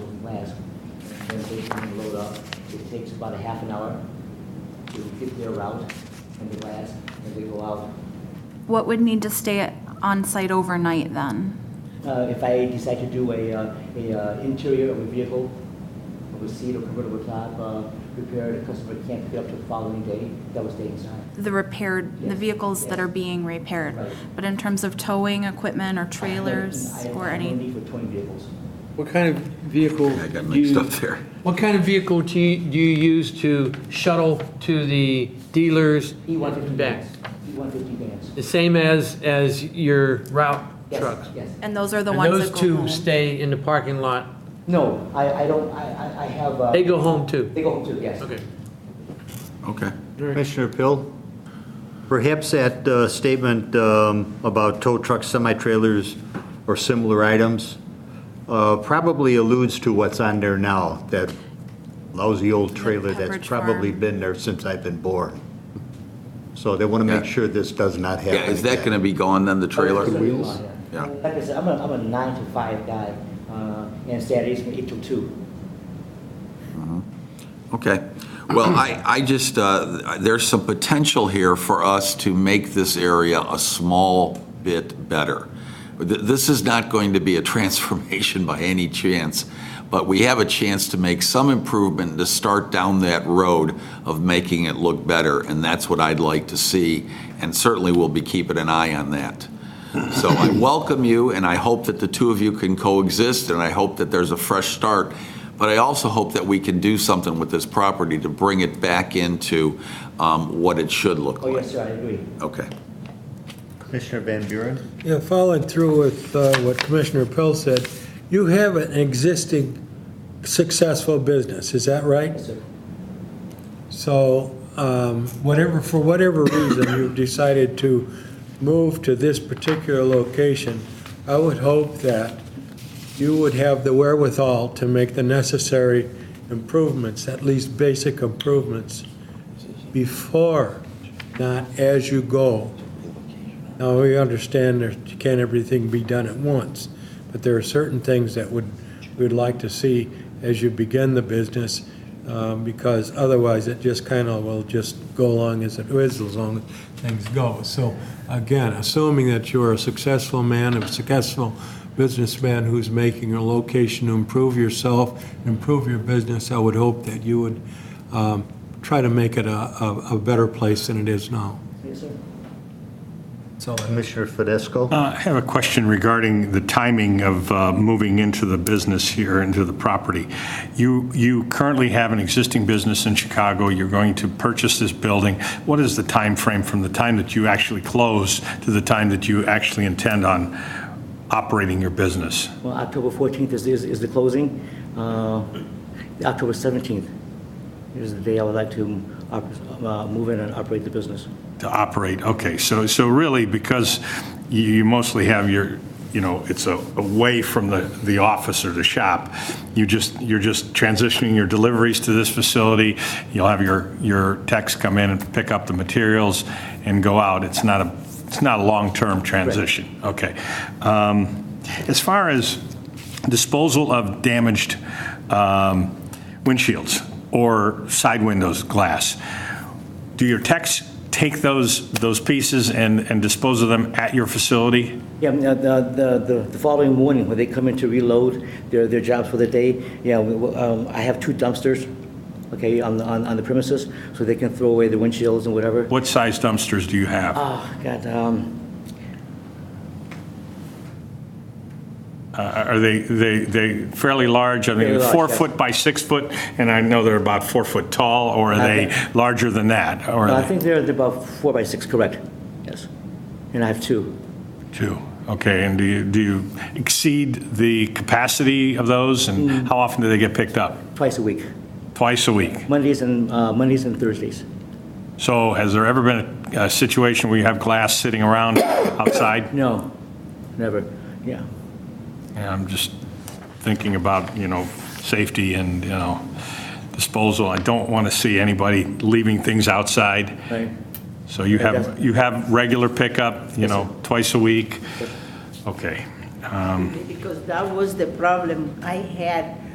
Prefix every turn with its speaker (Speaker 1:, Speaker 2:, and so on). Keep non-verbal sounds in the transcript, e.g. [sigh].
Speaker 1: station and load up. It takes about a half an hour to get their route and the last, and they go out.
Speaker 2: What would need to stay on site overnight then?
Speaker 1: Uh, If I decide to do a, uh, a uh, interior of a vehicle, of a seat or convertible top, uh, repair, the customer can't pick it up till the following day, that was stay inside.
Speaker 2: The repaired, the
Speaker 1: Yes,
Speaker 2: vehicles that
Speaker 1: yes.
Speaker 2: are being repaired?
Speaker 1: Right.
Speaker 2: But in terms of towing equipment or trailers
Speaker 1: I have-
Speaker 2: or
Speaker 1: I have no
Speaker 2: any?
Speaker 1: need for towing vehicles.
Speaker 3: What kind of vehicle
Speaker 4: I got
Speaker 3: do
Speaker 4: mixed
Speaker 3: you,
Speaker 4: up there.
Speaker 3: what kind of vehicle do you, do you use to shuttle to the dealers?
Speaker 2: E
Speaker 1: E150
Speaker 3: Back.
Speaker 1: vans. E150 vans.
Speaker 3: The same as, as your route
Speaker 1: Yes,
Speaker 3: trucks?
Speaker 1: Yes.
Speaker 2: And those are the
Speaker 3: And
Speaker 2: ones
Speaker 3: those
Speaker 2: that go
Speaker 3: two
Speaker 2: home?
Speaker 3: stay in the parking lot?
Speaker 1: No, I, I don't, I, I- I have. uh,
Speaker 3: They go home too?
Speaker 1: They go home too, yes.
Speaker 3: Okay.
Speaker 4: Okay.
Speaker 5: Commissioner Pill, perhaps that uh, statement um, about tow trucks, semi-trailers, or similar items uh, probably alludes to what's on there now, that lousy old trailer
Speaker 2: Pepperidge
Speaker 5: that's probably
Speaker 2: Farm.
Speaker 5: been there since I've been born. So they want to make
Speaker 4: Yeah.
Speaker 5: sure this does not happen
Speaker 4: Yeah, is that
Speaker 5: again.
Speaker 4: going to be gone then, the trailer?
Speaker 1: The wheels?
Speaker 4: Yeah.
Speaker 1: Like I said, I'm a, I'm a nine to five guy, uh, and Saturdays from eight to two.
Speaker 4: Okay. Well, I, I just, uh, there's some potential here for us to make this area a small bit better. Th- This is not going to be a [laughs] transformation by any chance, but we have a chance to make some improvement, to start down that road of making it look better, and that's what I'd like to see, and certainly we'll be keeping an eye on that. So I welcome you, and I hope that the two of you can coexist, and I hope that there's a fresh start. But I also hope that we can do something with this property to bring it back into um, what it should look
Speaker 1: Oh,
Speaker 4: like.
Speaker 1: yes, sir, I agree.
Speaker 4: Okay.
Speaker 5: Commissioner Van Buren?
Speaker 6: Yeah, following through with uh, what Commissioner Pill said, you have an existing successful business, is that right?
Speaker 1: Yes, sir.
Speaker 6: So um, whatever, for whatever reason you've decided to move to this particular location, I would hope that you would have the wherewithal to make the necessary improvements, at least basic improvements, before, not as you go. Now, we understand there can't everything be done at once, but there are certain things that would, we'd like to see as you begin the business, um, because otherwise it just kind of will just go along as it is, as long as things go. So again, assuming that you're a successful man, a successful businessman who's making a location to improve yourself, improve your business, I would hope that you would um, try to make it a, a a better place than it is now.
Speaker 1: Yes, sir.
Speaker 6: So
Speaker 5: Commissioner Fidesco?
Speaker 7: Uh, I have a question regarding the timing of uh, moving into the business here, into the property. You, you currently have an existing business in Chicago, you're going to purchase this building. What is the time frame from the time that you actually close to the time that you actually intend on operating your business?
Speaker 1: Well, October 14th is, is, is the closing. Uh, October 17th is the day I would like to op- uh, move in and operate the business.
Speaker 7: To operate, okay, so, so really, because you you mostly have your, you know, it's a- away from the, the office or the shop, you just, you're just transitioning your deliveries to this facility, you'll have your, your techs come in and pick up the materials and go out, it's not a, it's not a long-term transition, okay. Um, As far as disposal of damaged um, windshields or side windows glass, do your techs take those, those pieces and, and dispose of them at your facility?
Speaker 1: Yeah, I mean, uh, the, the, the- the following morning, when they come in to reload their, their jobs for the day, yeah, we- we- um, I have two dumpsters, okay, on, the- on, on the premises, so they can throw away the windshields and whatever.
Speaker 7: What size dumpsters do you have?
Speaker 1: Oh, God, um,
Speaker 7: Uh, Are they, they, they fairly large? Are
Speaker 1: Fairly
Speaker 7: they
Speaker 1: large,
Speaker 7: four
Speaker 1: yes.
Speaker 7: foot by six foot? And I know they're about four foot tall, or are they larger than that? Or
Speaker 1: I
Speaker 7: are they
Speaker 1: think they're about four by six, correct, yes. And I have two.
Speaker 7: two? Okay, and do you, do you exceed the capacity of those?
Speaker 1: Mm.
Speaker 7: And how often do they get picked up?
Speaker 1: twice a week,
Speaker 7: Twice a week?
Speaker 1: Mondays and, uh, Mondays and Thursdays.
Speaker 7: So has there ever been a a situation where you have glass
Speaker 1: [coughs]
Speaker 7: sitting around outside?
Speaker 1: No, never, yeah.
Speaker 7: And I'm just thinking about, you know, safety and, you know, disposal. I don't want to see anybody leaving things outside.
Speaker 1: Right.
Speaker 7: So you have,
Speaker 1: Definitely.
Speaker 7: you have regular pickup, you
Speaker 1: Yes,
Speaker 7: know, twice a week? Okay.
Speaker 8: because that was the problem I had